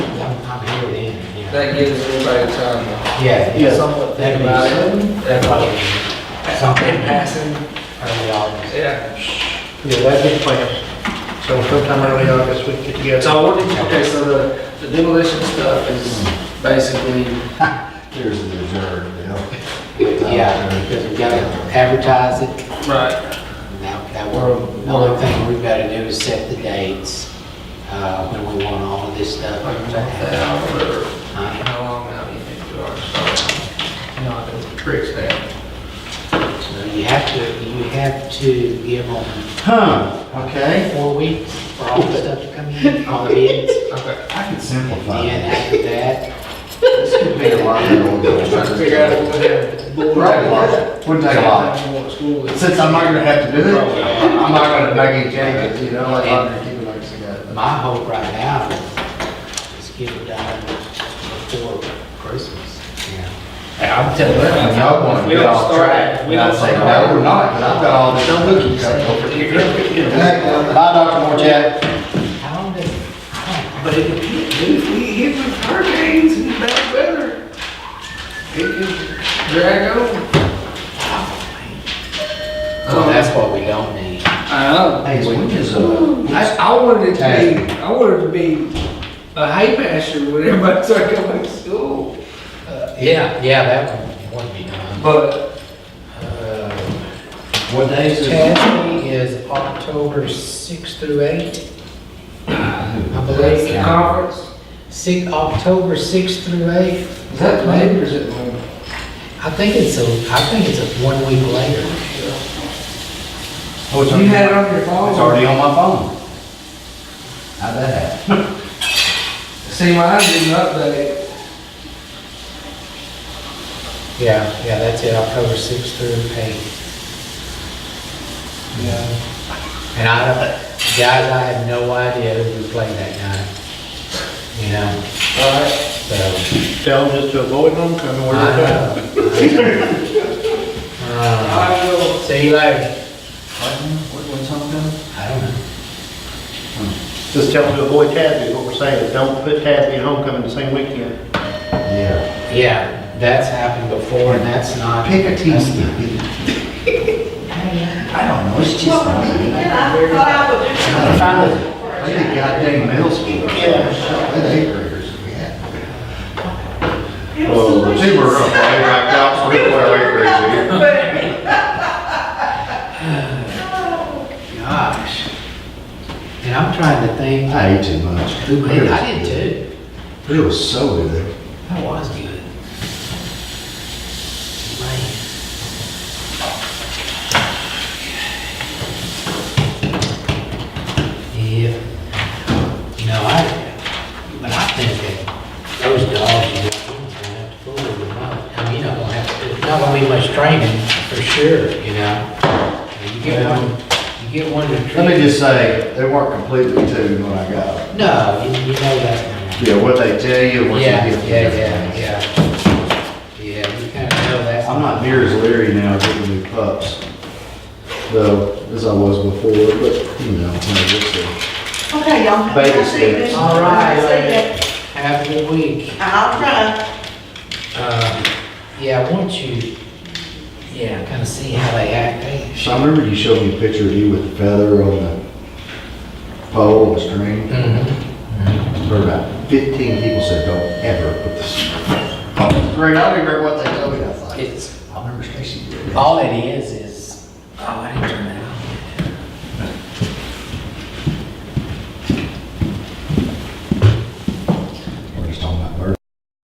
That gives everybody time Yeah. to somewhat That'd be think about it. That'd probably be In something passing, early August. yeah. Yeah, that'd be the plan. So sometime early August, we could get So what did you, okay, so the the demolition stuff is basically, Here's the reserve, you know? Yeah, because we gotta advertise it. right, And That, that we're, the only thing we've got to do is set the dates, uh, when we want all of this stuff. like month out or Uh, how long out you think you are, so. You know, I do tricks now. So you have to, you have to give them Huh, okay. four weeks for all the stuff to come in, all the bids. Okay. I can And simplify then it. after that, This could be a lot of Trying to figure out what the board. Right, wouldn't take a lot. School is. Since I'm not gonna have to do it, I'm not gonna make any changes, you know, like I'm gonna keep it like it's got. my hope right now is get it done before Christmas. Hey, I'm telling you. And y'all wanna We get don't off track, start- we and I don't say, start- no, we're not, but I've got all this. Don't look at yourself. Hey, Bye, Dr. Morchat. How long does, I But if, if we hit with hurricanes and bad weather, it can drag over. don't, so that's what we don't need. I know. Hey, when is, uh, I, I wanted it to be, I wanted it to be a hay pasture when everybody started coming to school. Yeah, yeah, that one would be done. But Uh, what days is it? Tasby is October 6 through 8, I that's the believe. conference, Six, October 6 through 8. is that late or is it morning? I think it's a, I think it's a one week later. Oh, it's You had it already- on your phone? it's already on my phone. How'd that happen? See, mine didn't update. Yeah, yeah, that's it, October 6 through 8. Yeah. And I don't, guys, I have no idea who we played that night. You know, Alright, so. Tell them just to avoid them, come and I order Uh-huh. them. know. Uh, I will. See you later. What, what's on them? I don't know. Just tell them to avoid Tasby, is what we're saying. Don't put Tasby and homecoming the same weekend. Yeah. Yeah, that's happened before and that's not. Pick a team. I don't know, it's just. They did goddamn middle school. Yeah. They eighth graders. Yeah. Well, the two were up, they backed out, so it went right crazy. Gosh. And I'm trying to think, I ate too much. who made, I did too. It was so good. That was good. Man. Yeah. You know, I, but I think that those dogs, you don't have to fool with them. I mean, you don't have to, not gonna be much training, for sure, you know? You get one, you get one to train. Let me just say, they weren't completely tuned when I got them. No, you, you know that. Yeah, what they tell you, what you Yeah, get. yeah, yeah, yeah. Yeah, you kind of know that. I'm not near as leery now getting new pups, though, as I was before, but, you know, when I uh, get there. Okay, y'all. have a Baby nice steps. evening. All right. Say that. Have a good week. I'll try. Um, Yeah, I want you, yeah, kind of see how they act. eh? Hey, sh- So I remember you showed me a picture of you with the feather on the pole, the string. Mhm. Heard about fifteen people said, don't ever put this on the string. I don't even remember what they told me. I was like, It's, I remember Stacy did. all it is, is, oh, I didn't turn